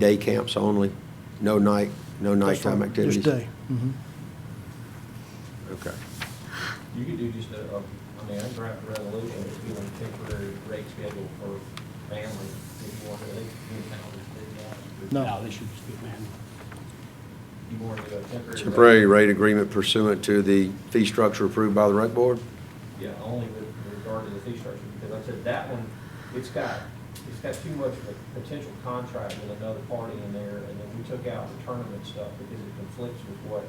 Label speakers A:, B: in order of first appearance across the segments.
A: Day camps only, no night, no nighttime
B: Just
A: activities?
B: day. Mhm.
A: Okay.
C: You could do just a, a- I mean, I can draft a resolution, if you want a temporary rate schedule for families, if you want to, they can do that, if they want.
B: No.
D: they should just be manual.
C: You want to do a temporary. rate-
A: Temporary rate agreement pursuant to the fee structure approved by the rec board?
C: Yeah, only with regard to the fee structure, because like I said, that one, it's got, it's got too much of a potential contract with another party in there, and then we took out the tournament stuff because it conflicts with what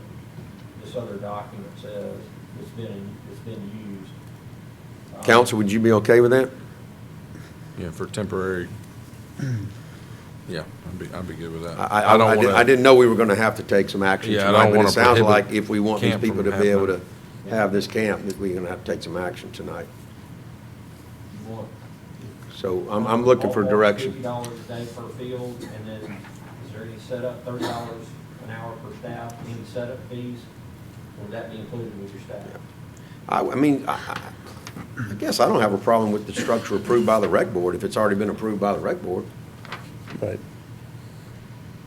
C: this other document says, it's been, it's been used. Um,
A: Council, would you be okay with that?
E: Yeah, for temporary, yeah, I'd be, I'd be good with that.
A: I, I, I
E: don't
A: did-
E: wanna-
A: I didn't know we were gonna have to take some action
E: Yeah, I
A: tonight,
E: don't
A: but it
E: wanna
A: sounds
E: prohibit
A: like if we want these
E: camp
A: people to
E: from
A: be able to
E: happening.
A: have this camp, that we're gonna have to take some action tonight.
C: Um, You want-
A: So I'm, I'm looking for
C: Ballpark, Fifty
A: direction.
C: dollars a day per field, and then is there any setup, thirty dollars an hour per staff, any setup fees? Or Would that be included with your staff?
A: I, I mean, I, I- I guess I don't have a problem with the structure approved by the rec board, if it's already been approved by the rec board.
F: Right.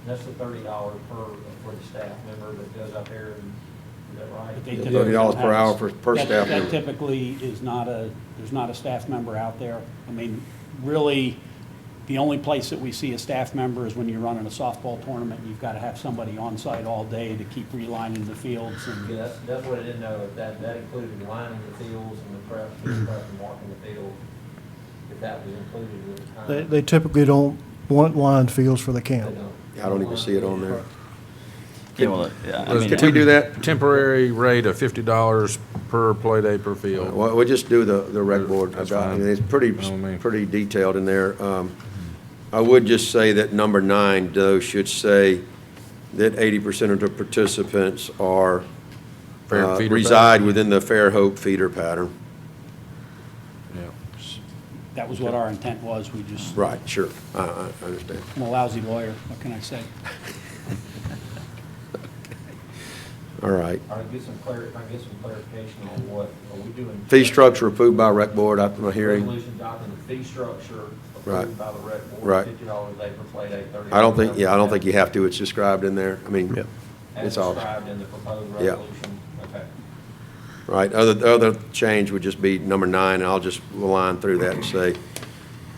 C: And That's the thirty dollars per, for the staff member that goes up there, and is that
D: But they
C: right?
A: Yeah,
D: typically
A: $30 per hour
D: have-
A: for- per
D: that-
A: staff member.
D: That typically is not a, there's not a staff member out there. I mean, really, the only place that we see a staff member is when you're running a softball tournament. You've got to have somebody on site all day to keep relining the fields
C: Yeah,
D: and,
C: that's, that's what I didn't know, if that, that included lining the fields and the prep, field prep and marking the field, if that was included with the time.
B: They they typically don't want lined fields for the
C: They
B: camp.
C: don't.
A: I don't even see it on there.
G: Yeah, well, yeah, I mean,
A: Could we do that?
E: Temporary rate of fifty dollars per play day per field.
A: Well, we'll just do the, the rec board.
E: That's
A: about- I mean,
E: fine.
A: It's pretty,
E: I don't mean-
A: pretty detailed in there. Um, I would just say that number nine, though, should say that eighty percent of the participants are,
E: Fair
A: uh,
E: feeder pattern.
A: reside within the Fair Hope feeder pattern.
E: Yeah.
D: that was what our intent was. We just,
A: Right, sure, I, I I understand.
D: I'm a lousy lawyer, what can I say?
A: All right.
C: All right, get some clar, I get some clarification on what, are we doing?
A: Fee structure approved by rec board after my hearing.
C: Resolution adopting the fee structure
A: Right.
C: approved by the rec board.
A: Right.
C: Fifty dollars a day per play day, thirty.
A: I don't think, yeah, I don't think you have to, it's described in there. I mean,
F: Yep.
C: As
A: it's all,
C: described in the proposed
A: Yeah.
C: resolution, okay.
A: Right, other, the other change would just be number nine, and I'll just line through that and say,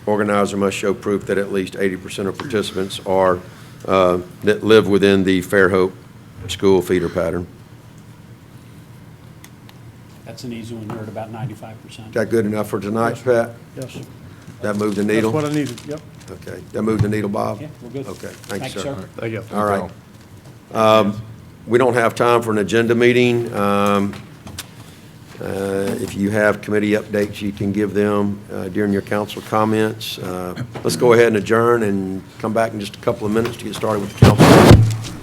A: organizer must show proof that at least eighty percent of participants are, uh, that live within the Fairhope school feeder pattern.
D: That's an easy one, we're at about ninety-five percent.
A: Is that good enough for tonight, Pat?
B: Yes.
A: That moved the
B: That's
A: needle?
B: what I needed, yep.
A: Okay, that moved the needle, Bob?
D: Yeah, we're good.
A: Okay, thank you, sir.
F: There you go.
A: All right. Um, We don't have time for an agenda meeting. Um, uh, If you have committee updates, you can give them uh, during your council comments. Uh, Let's go ahead and adjourn and come back in just a couple of minutes to get started with the council.